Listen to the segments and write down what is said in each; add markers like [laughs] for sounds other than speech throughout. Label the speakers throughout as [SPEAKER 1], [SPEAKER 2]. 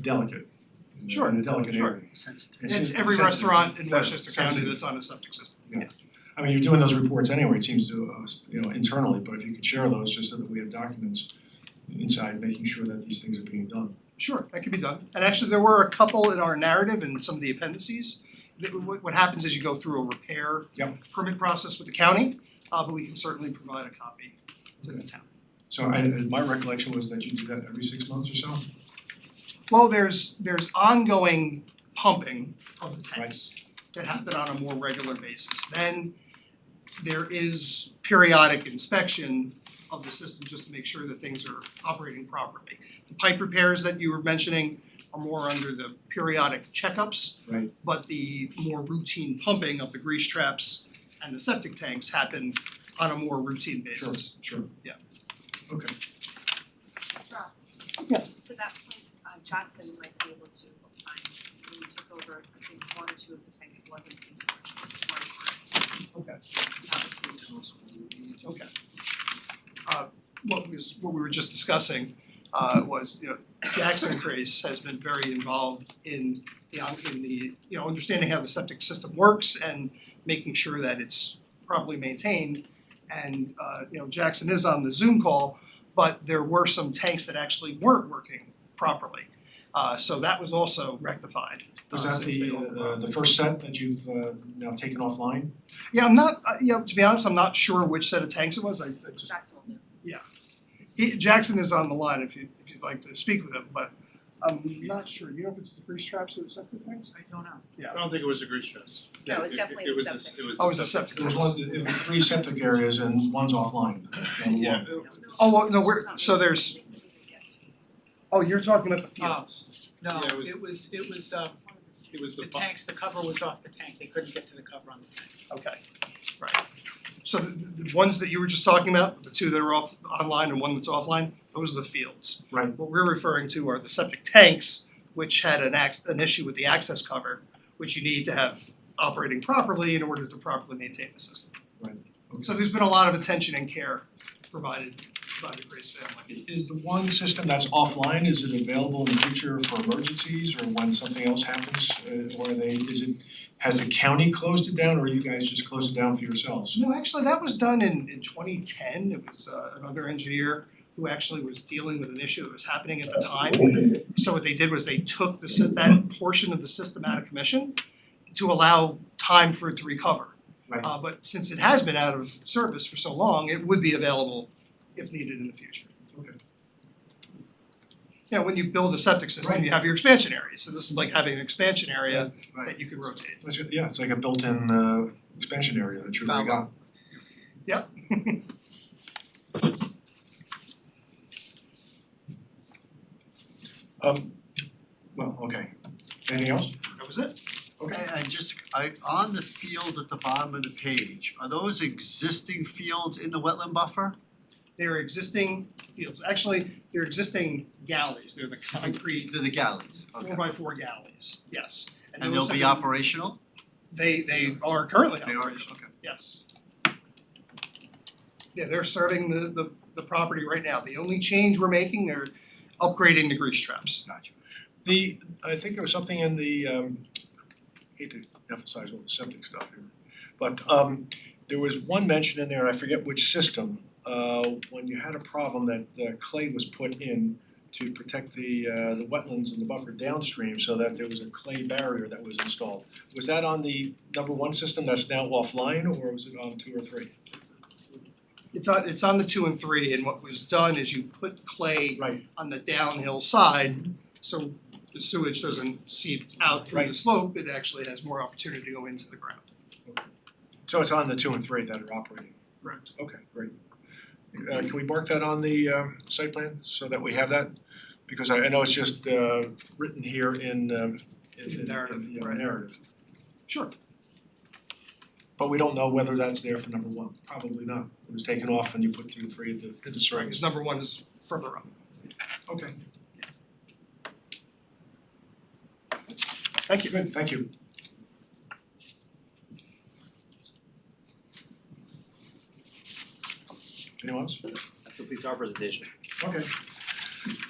[SPEAKER 1] delicate. in a-
[SPEAKER 2] Sure,
[SPEAKER 1] in a delicate
[SPEAKER 2] sure.
[SPEAKER 1] area.
[SPEAKER 3] sensitive.
[SPEAKER 1] It's
[SPEAKER 2] That's
[SPEAKER 1] sen-
[SPEAKER 2] every
[SPEAKER 1] sensitive.
[SPEAKER 2] restaurant in
[SPEAKER 1] Yeah,
[SPEAKER 2] Westchester County
[SPEAKER 1] sensitive.
[SPEAKER 2] that's on a septic system.
[SPEAKER 1] I mean, you're doing those reports anyway, it seems to us, you know, internally, but if you could share those just so that we have documents inside, making sure that these things are being done.
[SPEAKER 2] Sure, that could be done. And actually, there were a couple in our narrative and some of the appendices. That what what happens is you go through a repair
[SPEAKER 1] Yep.
[SPEAKER 2] permit process with the county, uh but we can certainly provide a copy to the town.
[SPEAKER 1] So I, uh, my recollection was that you do that every six months or so?
[SPEAKER 2] Well, there's there's ongoing pumping of the tanks that happen on a more regular basis. Then there is periodic inspection of the system just to make sure that things are operating properly. The pipe repairs that you were mentioning are more under the periodic checkups.
[SPEAKER 1] Right.
[SPEAKER 2] But the more routine pumping of the grease traps and the septic tanks happen on a more routine
[SPEAKER 1] Sure,
[SPEAKER 2] basis.
[SPEAKER 1] sure.
[SPEAKER 2] Yeah.
[SPEAKER 1] Okay,
[SPEAKER 4] Rob.
[SPEAKER 2] Yeah.
[SPEAKER 4] To that point, uh Johnson might be able to opine, when you took over, I think one or two of the tanks wasn't being worked, one
[SPEAKER 2] okay.
[SPEAKER 4] were.
[SPEAKER 2] Okay. Uh what was what we were just discussing uh was, you know, Jackson Grace has been very involved in the in the, you know, understanding how the septic system works and making sure that it's properly maintained. And uh you know, Jackson is on the Zoom call, but there were some tanks that actually weren't working properly. Uh so that was also rectified.
[SPEAKER 1] was
[SPEAKER 2] uh,
[SPEAKER 1] that
[SPEAKER 2] since they
[SPEAKER 1] the,
[SPEAKER 2] overwhelmed.
[SPEAKER 1] the, the first set that you've uh, now taken offline?
[SPEAKER 2] Yeah, I'm not, uh, yeah, to be honest, I'm not sure which set of tanks it was, I I just
[SPEAKER 4] Jackson will do.
[SPEAKER 2] He- Jackson is on the line if you, if you'd like to speak with him, but um, I'm not sure, you know if it's the grease traps or the septic tanks?
[SPEAKER 4] I don't know.
[SPEAKER 2] Yeah.
[SPEAKER 5] I don't think it was a grease traps.
[SPEAKER 4] No, it was
[SPEAKER 5] It- it-
[SPEAKER 4] definitely
[SPEAKER 5] it
[SPEAKER 4] the
[SPEAKER 5] was the-
[SPEAKER 4] septic.
[SPEAKER 5] It was the septic.
[SPEAKER 2] Oh, it was the septic.
[SPEAKER 1] There was one, it was three septic areas and one's offline. And
[SPEAKER 5] Yeah.
[SPEAKER 2] Oh, well, no, we're, so there's, oh, you're talking about the fields.
[SPEAKER 6] No,
[SPEAKER 5] Yeah, it was-
[SPEAKER 6] it was, it was, uh,
[SPEAKER 5] It was
[SPEAKER 6] the
[SPEAKER 5] the bu-
[SPEAKER 6] tanks, the cover was off the tank, they couldn't get to the cover on the tank.
[SPEAKER 4] Oh.
[SPEAKER 2] Okay, right. So the, the ones that you were just talking about, the two that are off, online and one that's offline, those are the fields.
[SPEAKER 1] Right.
[SPEAKER 2] What we're referring to are the septic tanks, which had an ax, an issue with the access cover, which you need to have operating properly in order to properly maintain the system. So
[SPEAKER 1] Okay.
[SPEAKER 2] there's been a lot of attention and care provided by the Grace family.
[SPEAKER 1] Is the one system that's offline, is it available in the future for emergencies or when something else happens? Uh, Or are they, is it, has the county closed it down or you guys just closed it down for yourselves?
[SPEAKER 2] No, actually, that was done in in twenty ten, it was uh another engineer who actually was dealing with an issue that was happening at the time. So what they did was they took the sys- that portion of the system out of commission to allow time for it to recover.
[SPEAKER 1] Right.
[SPEAKER 2] Uh but since it has been out of service for so long, it would be available if needed in the future.
[SPEAKER 1] Okay.
[SPEAKER 2] Yeah, when you build a septic system, you have your expansion area, so this is like having an expansion area
[SPEAKER 1] Right.
[SPEAKER 2] that you can rotate.
[SPEAKER 1] That's it, Yeah, it's like a built-in uh, expansion area that you really
[SPEAKER 2] Foul.
[SPEAKER 1] got. [laughs] Um, well, okay. Anything else?
[SPEAKER 2] That was it?
[SPEAKER 1] Okay.
[SPEAKER 7] I I just, I, on the fields at the bottom of the page, are those existing fields in the wetland buffer?
[SPEAKER 2] They are existing fields, actually, they're existing galleys, they're the concrete
[SPEAKER 7] They're the galleys, okay.
[SPEAKER 2] four by four galleys, yes.
[SPEAKER 7] And
[SPEAKER 2] those
[SPEAKER 7] they'll be
[SPEAKER 2] have been-
[SPEAKER 7] operational?
[SPEAKER 2] They they are currently
[SPEAKER 7] They are,
[SPEAKER 2] operational,
[SPEAKER 7] okay.
[SPEAKER 2] yes. Yeah, they're serving the the the property right now, the only change we're making, they're upgrading the grease traps.
[SPEAKER 7] Gotcha.
[SPEAKER 1] The, I think there was something in the, um, hate to emphasize all the septic stuff here, but, um, there was one mention in there, I forget which system, uh, when you had a problem that uh, clay was put in to protect the, uh, the wetlands and the buffer downstream so that there was a clay barrier that was installed. Was that on the number one system that's now offline, or was it on two or three?
[SPEAKER 2] It's on it's on the two and three, and what was done is you put clay
[SPEAKER 1] Right,
[SPEAKER 2] on the downhill side, so the sewage doesn't seep out through the
[SPEAKER 1] Right.
[SPEAKER 2] slope, it actually has more opportunity to go into the ground.
[SPEAKER 1] so it's on the two and three that are operating?
[SPEAKER 2] Correct.
[SPEAKER 1] Okay, great. Uh, can we mark that on the um, site plan so that we have that? Because I, I know it's just uh, written here in, um, in, in, in
[SPEAKER 2] Narrative,
[SPEAKER 1] the, uh,
[SPEAKER 2] right.
[SPEAKER 1] narrative.
[SPEAKER 2] Sure.
[SPEAKER 1] But we don't know whether that's there for number one, probably not. It was taken off and you put two and three into, into
[SPEAKER 2] Because
[SPEAKER 1] Seringas.
[SPEAKER 2] number one is further up.
[SPEAKER 1] Okay,
[SPEAKER 2] Thank you.
[SPEAKER 1] good, thank you. Anyone else?
[SPEAKER 8] That completes our presentation.
[SPEAKER 1] Okay.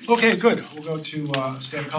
[SPEAKER 1] Okay, good. We'll go to uh, staff comments.